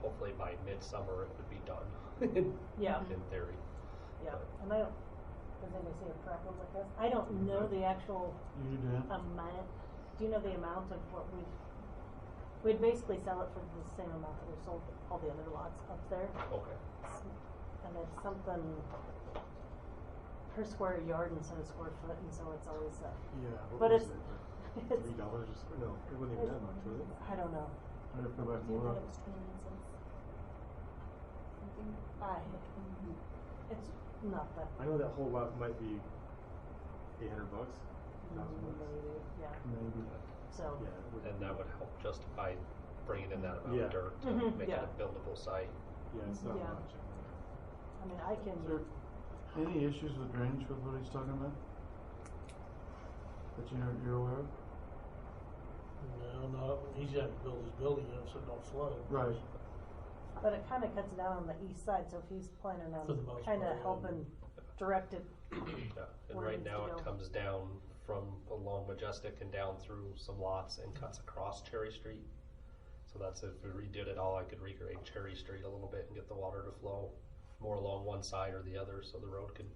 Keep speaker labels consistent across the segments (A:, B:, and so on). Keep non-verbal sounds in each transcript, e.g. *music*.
A: hopefully by midsummer it would be done,
B: *laughs* Yeah,
A: in theory.
B: yeah, and I don't, does anybody see a problem with this? I don't know the actual
C: You do.
B: amount, do you know the amount of what we've, we'd basically sell it for the same amount that we sold all the other lots up there.
A: Okay,
B: And it's something per square yard instead of square foot, and so it's always, uh,
C: Yeah. what
B: But
C: was
B: it's- *laughs*
C: it?
B: it's-
C: Three dollars? No, it wasn't even that much, was it?
B: I don't know.
C: I wonder if we went
D: Do you
C: more
D: think
C: up.
D: it was twenty cents? Something?
B: I, it's not that,
C: I know that whole lot might be eight hundred bucks, thousand bucks,
B: maybe, yeah,
C: maybe.
B: so.
C: Yeah. it would-
A: and that would help justify bringing in that amount
C: Yeah.
A: of dirt to
B: Mhm,
A: make it a
B: yeah.
A: buildable
B: *clears throat*
A: site.
C: Yeah, it's not
B: Yeah.
C: much.
B: I mean, I can,
C: Is there any issues with drainage with what he's talking about? That you know, you're aware of?
E: No, no, he's having to build his building up so it don't flood.
C: Right.
B: but it kinda cuts down on the east side, so if he's planning on
E: For the most part,
B: kinda
E: yeah.
B: helping direct it,
A: Yeah, And
B: Where it
A: right
B: needs
A: now
B: to go.
A: it comes down from along Majestic and down through some lots and cuts across Cherry Street. So that's if we redid it all, I could regrade Cherry Street a little bit and get the water to flow more along one side or the other, so the road could,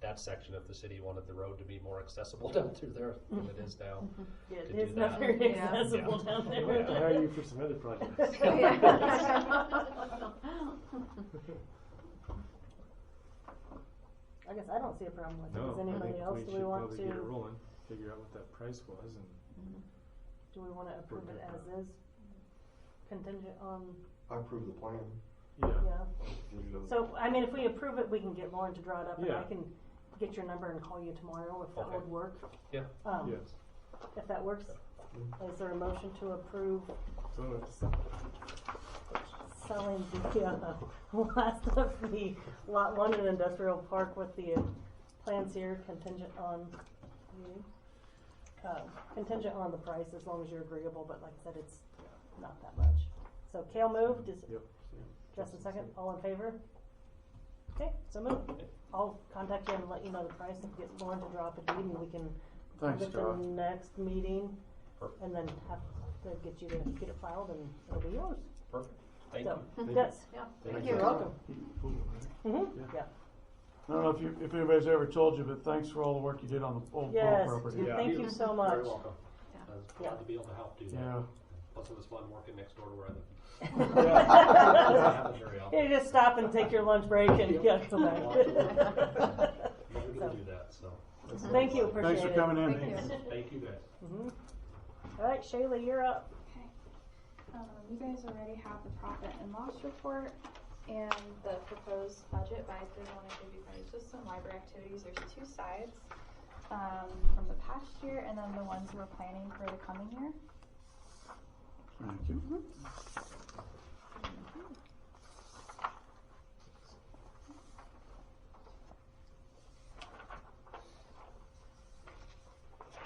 A: that section of the city wanted the road to be more accessible *laughs* down through there than it is now.
B: yeah,
A: Could do
B: it's not
A: that.
B: very
D: Yeah.
B: accessible
A: Yeah.
B: down
C: I have to hire
B: there.
C: you for some other projects.
B: *laughs* I guess I don't see a problem with it,
C: *laughs* No,
B: does
C: I
B: anybody
C: think
B: else,
C: we
B: do
C: should
B: we want
C: probably
B: to,
C: get it rolling, figure out what that price was and.
B: do we wanna approve it
C: Work
B: as
C: it
B: is? Contingent on,
F: I approve the plan.
B: yeah, so, I mean, if we approve it, we can get Lauren to draw it up, and I
C: Yeah.
B: can get your number and call you tomorrow if that
A: Okay.
B: would work.
A: Yeah.
B: Um,
C: Yes.
B: if that works, is there a motion to approve
C: So uh, it's,
B: selling the *laughs* uh, last of the lot one in industrial park with the uh, plans here contingent on you. Uh, contingent on the price as long as you're agreeable, but like I said, it's not that much. So Kale moved, is
C: yep.
B: Justin second, all in favor? Okay, so move. I'll contact you and let you know the price and get Lauren to draw up a deed and we can
C: Thanks,
B: at the
C: Josh.
B: next meeting
A: Perfect.
B: and then have to get you to get it filed and it'll be yours.
A: Perfect, thank you.
B: So, yes.
D: Thank
B: You're
D: you.
B: welcome.
C: Yeah.
B: Mm-hmm, yeah.
C: I don't know if you, if anybody's ever told you, but thanks for all the work you did on the old Pearl
B: Yes,
C: property.
A: Yeah.
B: thank you so much.
A: You're welcome.
D: Yeah.
A: I was
B: Yeah.
A: glad to be able to help do
C: Yeah.
A: that. Plus it was fun working next door to where I live. *laughs*
B: *laughs*
A: Doesn't
C: Yeah.
A: happen very often.
B: You just stop and take your lunch break and get *laughs* away.
A: Never gonna do that, so,
B: Thank you,
C: Thanks
B: appreciate
C: for
B: it.
C: coming in.
D: Thank you.
A: thank you guys.
B: Mhm. All right, Shayla, you're up.
D: Um, you guys already have the profit and loss report and the proposed budget, but I did wanna give you guys just some library activities, there's two sides. Um, from the past year and then the ones we're planning for the coming year.
C: Thank you.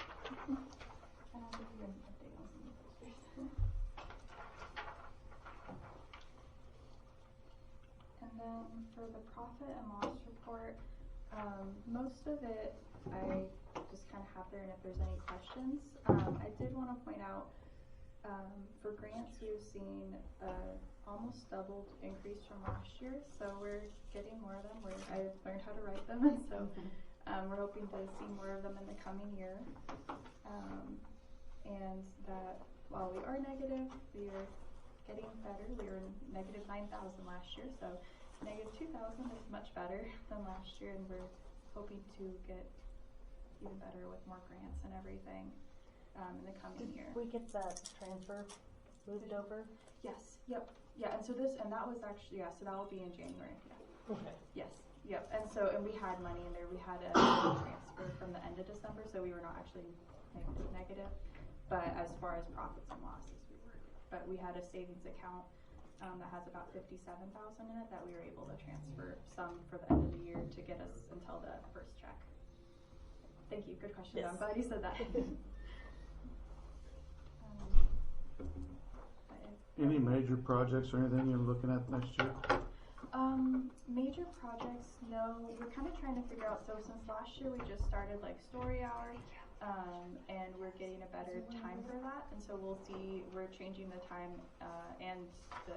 D: I don't think you're gonna update on some of the pictures. And then for the profit and loss report, um, most of it I just kind of have there and if there's any questions. Um, I did want to point out, um, for grants, we've seen, uh, almost doubled increase from last year. So we're getting more of them. We're, I learned how to write them *laughs* and so, um, we're hoping to see more of them in the coming year. Um, and that while we are negative, we are getting better. We were negative 9,000 last year, so negative 2,000 is much better *laughs* than last year, and we're hoping to get even better with more grants and everything um, in the coming year.
B: We get that transfer moved over?
D: Yes, yep, yeah, and so this, and that was actually, yeah, so that will be in January, yeah.
B: Okay.
D: Yes, yep, and so, and we had money in there, we had a *coughs* transfer from the end of December, so we were not actually negative, negative. But as far as profits and losses, we were, but we had a savings account, um, that has about fifty-seven thousand in it that we were able to transfer some for the end of the year to get us until the first check. Thank you, good question,
B: Yes.
D: I'm glad you said that. Um, but yeah.
C: Any major projects or anything you're looking at next year?
D: Um, major projects, no. We're kind of trying to figure out. So since last year, we just started like story hour, um, and we're getting a better time for that. And so we'll see. We're changing the time uh, and the